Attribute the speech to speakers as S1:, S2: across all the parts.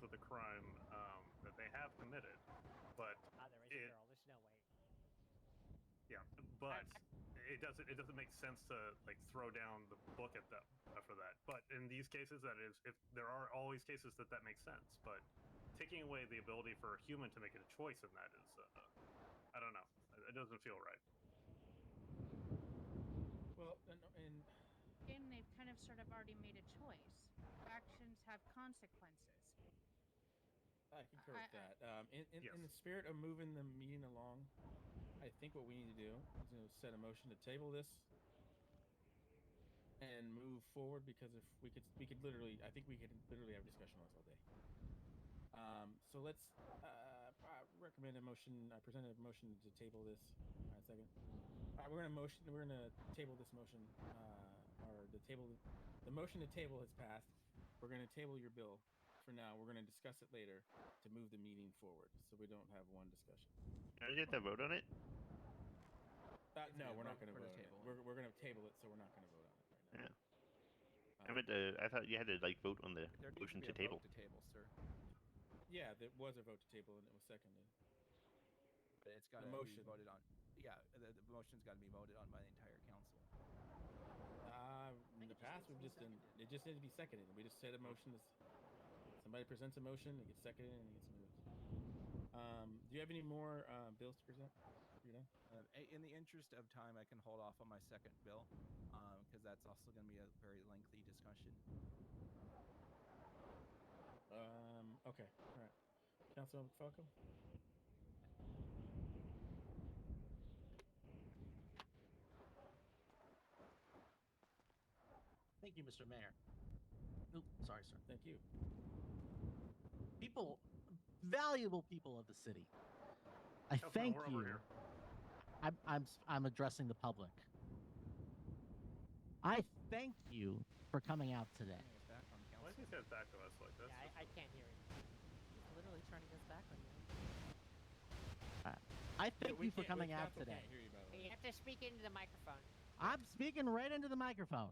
S1: um, submitted, but
S2: Ah, there is
S1: It-
S2: a girl. There's no way.
S1: yeah, but it doesn't it doesn't make sense to like throw down the book at them for that. But in these cases, that is, if there are always cases that that makes sense, but taking away the ability for a human to make a choice in that is, uh, I don't know, It- it doesn't feel right.
S3: Well, and, and
S4: game, they've kind of sort of already made a choice. Actions have consequences.
S3: I concur
S4: I-
S3: with that. Um, in, in,
S1: Yes.
S3: in the spirit of moving the meeting along, I think what we need to do is you know, set a motion to table this and move forward because if we could, we could literally, I think we could literally have a discussion on this all day. Um, so let's uh, I recommend a motion. I present a motion to table this. All right, second. All right, we're gonna motion. We're gonna table this motion, uh, or the table. The motion to table has passed. We're gonna table your bill for now. We're gonna discuss it later to move the meeting forward, so we don't have one discussion.
S5: Can I get the vote on it?
S3: Uh,
S6: It's
S3: no,
S6: gonna
S3: we're not
S6: vote
S3: gonna
S6: for the
S3: vote. On it.
S6: table.
S3: We're we're gonna table it, so we're not gonna vote on it right now. Uh, Yeah.
S5: I meant to, I thought you had to like vote on the
S6: There needs
S5: motion
S6: be
S5: to
S6: a vote
S5: table.
S6: To table, sir.
S3: yeah, there was a vote to table, and it was seconded.
S6: But it's got to be
S3: motion.
S6: voted on. Yeah, the, the motion's got to be voted on by the entire council.
S3: Uh, in the
S7: think it just
S3: past,
S7: needs
S3: we've
S7: to be
S3: just done, it just needed to be seconded. We just said a motion. Is, somebody presents a motion, it gets seconded, and it gets moved. Um, do you have any more uh, bills to present? You know,
S6: Um, i- in the interest of time, I can hold off on my second bill because that's also going to be a very lengthy discussion.
S3: um, okay, all right. Councilman Falco.
S7: Thank you, Mr. Mayor. Oop, sorry, sir.
S3: Thank you.
S7: People, valuable people of the city. I
S1: Councilman,
S7: thank
S1: we're
S7: you.
S1: over here.
S7: I'm, I'm, s- I'm addressing the public. I thank you for coming out today.
S6: Bring us back on
S1: Why
S6: council.
S1: do you guys back to us like this?
S2: yeah, I, I can't hear it.
S8: He's literally turning his back on you.
S7: I thank
S3: We
S7: you for
S3: can't- we-
S7: coming out
S3: council
S7: today.
S3: Can't hear you, by the way.
S8: You have to speak into the microphone.
S7: I'm speaking right into the microphone.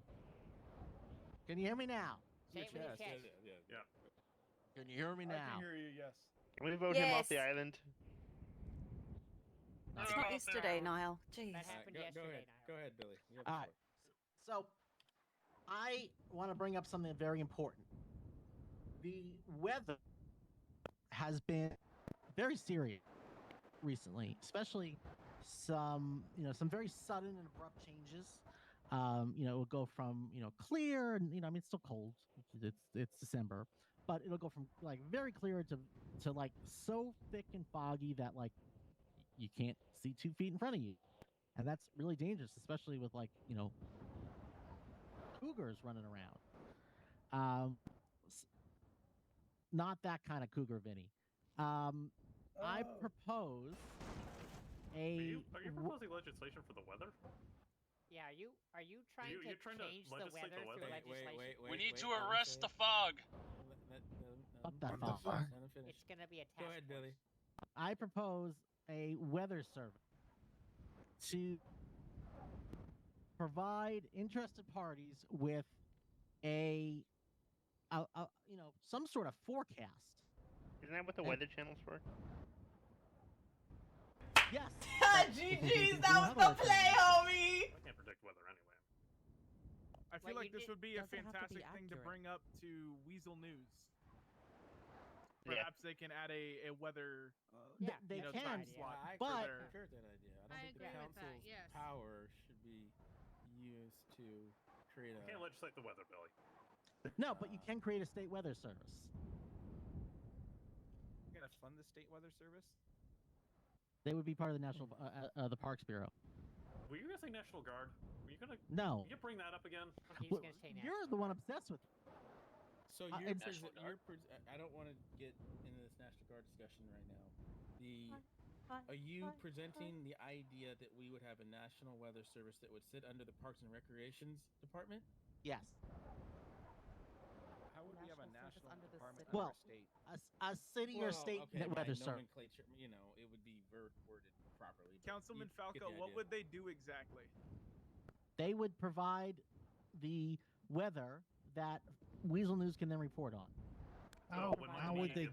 S7: Can you hear me now?
S8: Say it with your
S6: chest,
S3: Yeah,
S8: chest.
S3: yeah, yeah.
S1: Yeah.
S7: Can you hear me now?
S3: you. Yes.
S5: Can we vote him off the
S9: Yes.
S5: island?
S9: It's not yesterday, Niall. Jeez.
S2: That happened yesterday,
S3: go, go ahead.
S2: Niall.
S3: Go ahead, Billy. You have the
S7: All right.
S3: floor.
S7: So, I want to bring up something very important. The weather has been very serious recently, especially some, you know, some very sudden and abrupt changes. Um, you know, it will go from, you know, clear and, you know, I mean, it's still cold. It's, it's December, but it'll go from like very clear to, to like so thick and foggy that like y- you can't see two feet in front of you. And that's really dangerous, especially with like, you know, cougars running around. Um, s- not that kind of cougar, Vinny. Um, I
S10: Oh.
S7: propose
S1: Oh.
S7: a.
S1: Are you, are you
S7: w-
S1: proposing legislation for the weather?
S2: Yeah, are you are you trying
S1: you-
S2: to
S1: you're trying to
S2: change the
S1: legislate the weather?
S2: weather through
S3: Wait,
S2: legislation?
S3: wait, wait, wait.
S11: We need
S3: wait,
S11: to
S3: let him
S11: arrest the
S3: finish.
S11: fog.
S3: Let- let- let him- um,
S7: What the
S3: let him
S7: fuck?
S3: finish, let him finish.
S2: It's gonna be a task.
S3: Go ahead, Billy.
S7: I propose a weather service to provide interested parties with a, a, a you know, some sort of forecast.
S5: Isn't that what the
S7: Hey.
S5: weather channel's for?
S7: Yes.
S9: GG's, that was the play, homie.
S1: I can't predict weather anyway.
S10: I feel like
S8: Like, you
S10: this
S8: did-
S10: would be a
S8: doesn't have to be
S10: fantastic thing to
S8: accurate.
S10: bring up to Weasel News.
S5: Yeah.
S10: Perhaps they can add a, a weather.
S2: Yeah,
S7: They
S10: you know,
S7: can.
S10: time
S2: Yeah,
S10: slot
S3: I
S7: But-
S10: for their-
S3: concur with that idea. I don't think the
S4: I agree with that,
S3: council's
S4: yes.
S3: power should be used to create
S1: You can't
S3: a.
S1: legislate the weather, Billy.
S7: No, but you
S3: Uh,
S7: can create a state weather service.
S6: We're going to fund the state weather service.
S7: They would be part of the national uh, uh, uh, the Parks Bureau.
S1: Were you guys saying National Guard? Were you gonna
S7: No,
S1: you bring that up again?
S2: He's
S7: Well,
S2: gonna say
S7: you're the one obsessed with.
S3: So
S7: Uh,
S3: you're,
S7: it's-
S3: pres-
S11: National
S3: you're pres- I I don't want to get into this National Guard discussion right now. The are you presenting the idea that we would have a national weather service that would sit under the Parks and Recreations Department?
S7: Yes,
S6: How would we have a
S8: National service
S6: national
S8: under the
S6: department
S8: city.
S6: under
S7: Well,
S6: a state?
S7: a, s- a city or
S3: Well,
S7: state
S3: okay,
S7: net
S3: by
S7: weather service.
S3: nomenclature, You know, it would be ver- worded properly. but
S10: Councilman
S3: you get the
S10: Falco, what
S3: idea.
S10: would they do exactly?
S7: They would provide the weather that Weasel News can then report on.
S1: Oh,
S2: how
S1: we
S2: would
S1: need
S2: they